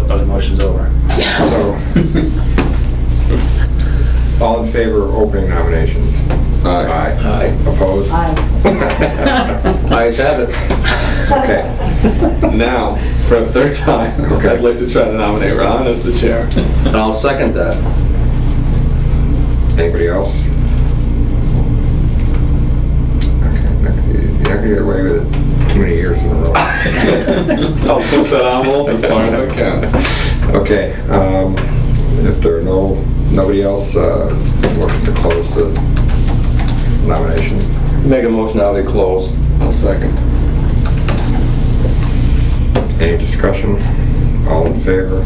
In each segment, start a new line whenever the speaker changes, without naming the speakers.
All in favor of opening nominations?
Aye.
Opposed?
Ayes have it.
Okay.
Now, for a third time,
Okay.
I'd like to try to nominate Ron as the chair.
And I'll second that.
Anybody else? Okay, next, you- You're not gonna get away with it too many years in a row.
I'll push that envelope as far as I can.
Okay, um, if there are no, nobody else, uh, motion to close the nomination.
Make a motion now to close.
I'll second.
Any discussion? All in favor?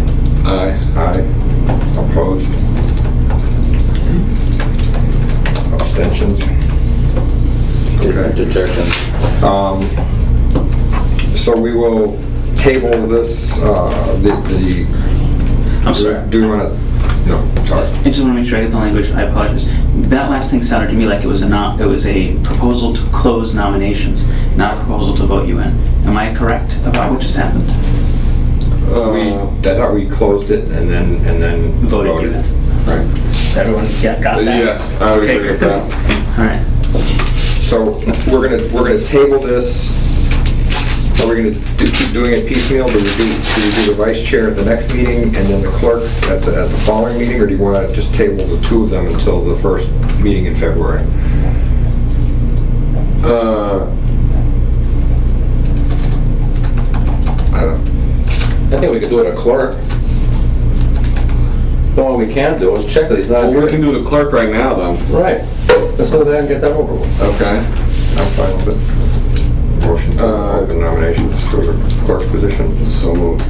Aye.
Aye. Opposed? Abstentions? Okay.
Dejection.
Um, So we will table this, uh, the, the...
I'm sorry.
Do you want to, no, sorry.
I just want to make sure I get the language. I apologize. That last thing sounded to me like it was a not, it was a proposal to close nominations, not a proposal to vote you in. Am I correct about what just happened?
We, Uh, I thought we closed it and then, and then...
Voted you in.
Right.
Everyone got got that?
Yes, I would agree with that.
All right.
So we're gonna, we're gonna table this. Are we gonna do- keep doing it piecemeal? Do we do, do we do the vice chair at the next meeting and then the clerk at the, at the following meeting? Or do you wanna just table the two of them until the first meeting in February?
Uh, I don't-
I think we could do it a clerk. No, what we can do is check that he's not
Well, we can
here.
do the clerk right now then.
Right. Let's do that and get that over with.
Okay.
I'm fine with it. Motion to
Uh,
open nominations for the clerk's position.
So moved.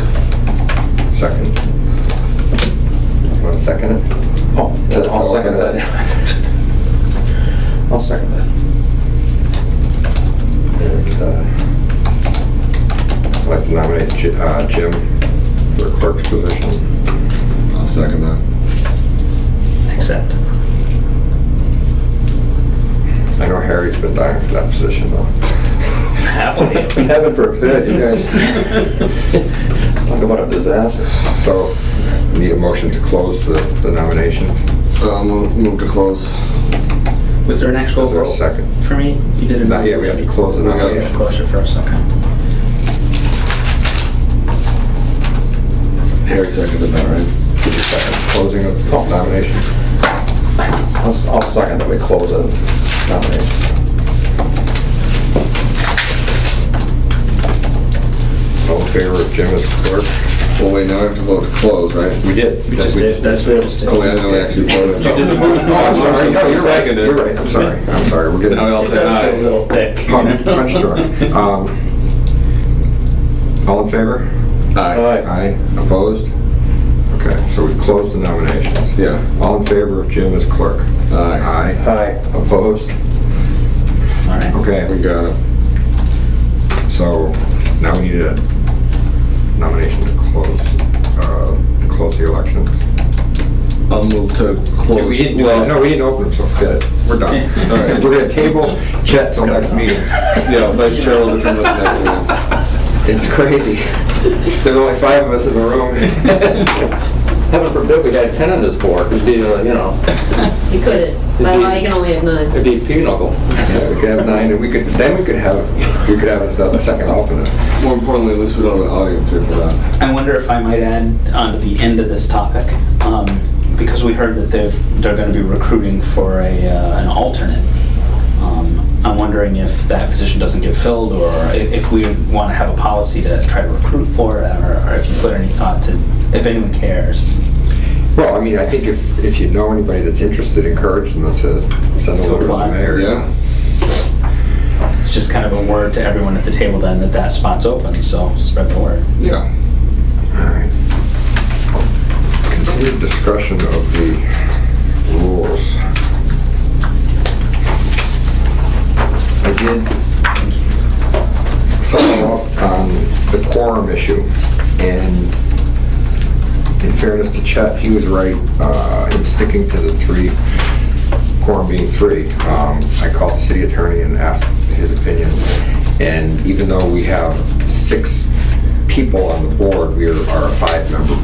Second. Want to second it?
Oh, I'll second that. I'll second that.
And, uh, I'd like to nominate Ji- uh, Jim for clerk's position.
I'll second that.
Accept.
I know Harry's been dying for that position though.
Happily.
Heaven forbid, you guys. Talk about a disaster.
So, need a motion to close the the nominations?
So move, Um, move to close.
Was there an actual
Is there a
vote
second?
for me? You Oh, did a...
Not yet, we have to close the
We gotta
nominations.
Closure first, okay.
Harry seconded that, right?
Give me a second. Closing of nominations.
I'll s- I'll second that we close the nomination.
All in favor of Jim as clerk?
Well, wait, now I have to vote to close, right?
We did. We just did.
That's what it was.
Oh, wait, I know we actually voted.
You did the motion.
Oh, I'm sorry,
No, you're right.
Seconded.
You're right, I'm sorry, I'm sorry, we're getting.
Now we all say aye.
little thick.
Punch punch drunk. Um, All in favor?
Aye.
Aye. Opposed? Okay, so we've closed the nominations.
Yeah.
All in favor of Jim as clerk?
Aye.
Aye.
Aye.
Opposed?
All right.
Okay,
We got it.
so now we need a nomination to close, uh, to close the election.
I'll move to close.
We didn't,
Well,
no, we didn't open them, so good, we're done. All right, we're gonna table Chet till next meeting.
Yeah, vice chair will determine the next one.
It's crazy. There's only five of us in the room.
Heaven forbid we had ten on this board, it'd be, uh, you know,
You couldn't. By law, you can only have nine.
it'd be pinochle.
Yeah, We could have nine, and we could, then we could have, we could have a second alternate.
More importantly, at least we don't have an audience here for that.
I wonder if I might add on to the end of this topic, um, because we heard that they're, they're going to be recruiting for a, uh, an alternate. Um, I'm wondering if that position doesn't get filled, or i- if we want to have a policy to try to recruit for it, or or if you put any thought to, if anyone cares.
Well, I mean, I think if, if you know anybody that's interested, encourage them to send a
To
letter to the
apply.
mayor.
Yeah?
It's just kind of a word to everyone at the table then that that spot's open, so spread the word.
Yeah.
Alright. Continued discussion of the rules. I did follow up on the quorum issue, and in fairness to Chet, he was right uh, in sticking to the three, quorum being three. Um, I called the city attorney and asked his opinion, and even though we have six people on the board, we are are a five-member